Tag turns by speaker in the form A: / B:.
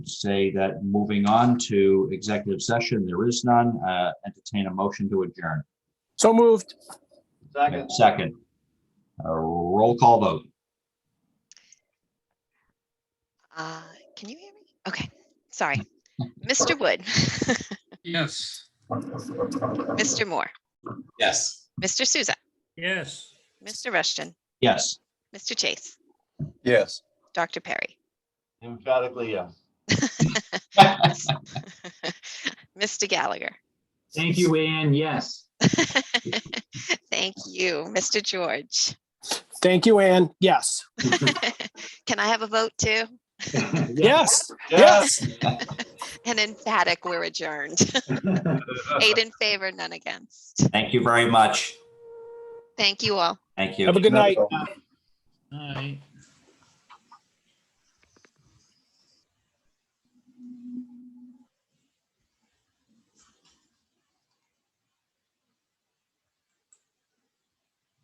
A: say that moving on to executive session, there is none. Uh, Entertain a motion to adjourn.
B: So moved.
C: Second.
A: Second. A roll call vote.
D: Uh, Can you hear me? Okay, sorry. Mr. Wood,
E: Yes.
D: Mr. Moore,
C: Yes.
D: Mr. Souza,
E: Yes.
D: Mr. Rushton,
A: Yes.
D: Mr. Chase,
B: Yes.
D: Dr. Perry,
C: Emphatically, yes.
D: Mr. Gallagher.
F: Thank you, Ann. Yes.
D: Thank you, Mr. George.
B: Thank you, Ann. Yes.
D: Can I have a vote too?
B: Yes. Yes.
D: An emphatic, we're adjourned. Eight in favor, none against.
A: Thank you very much.
D: Thank you all.
A: Thank you.
B: Have a good night.
E: All right.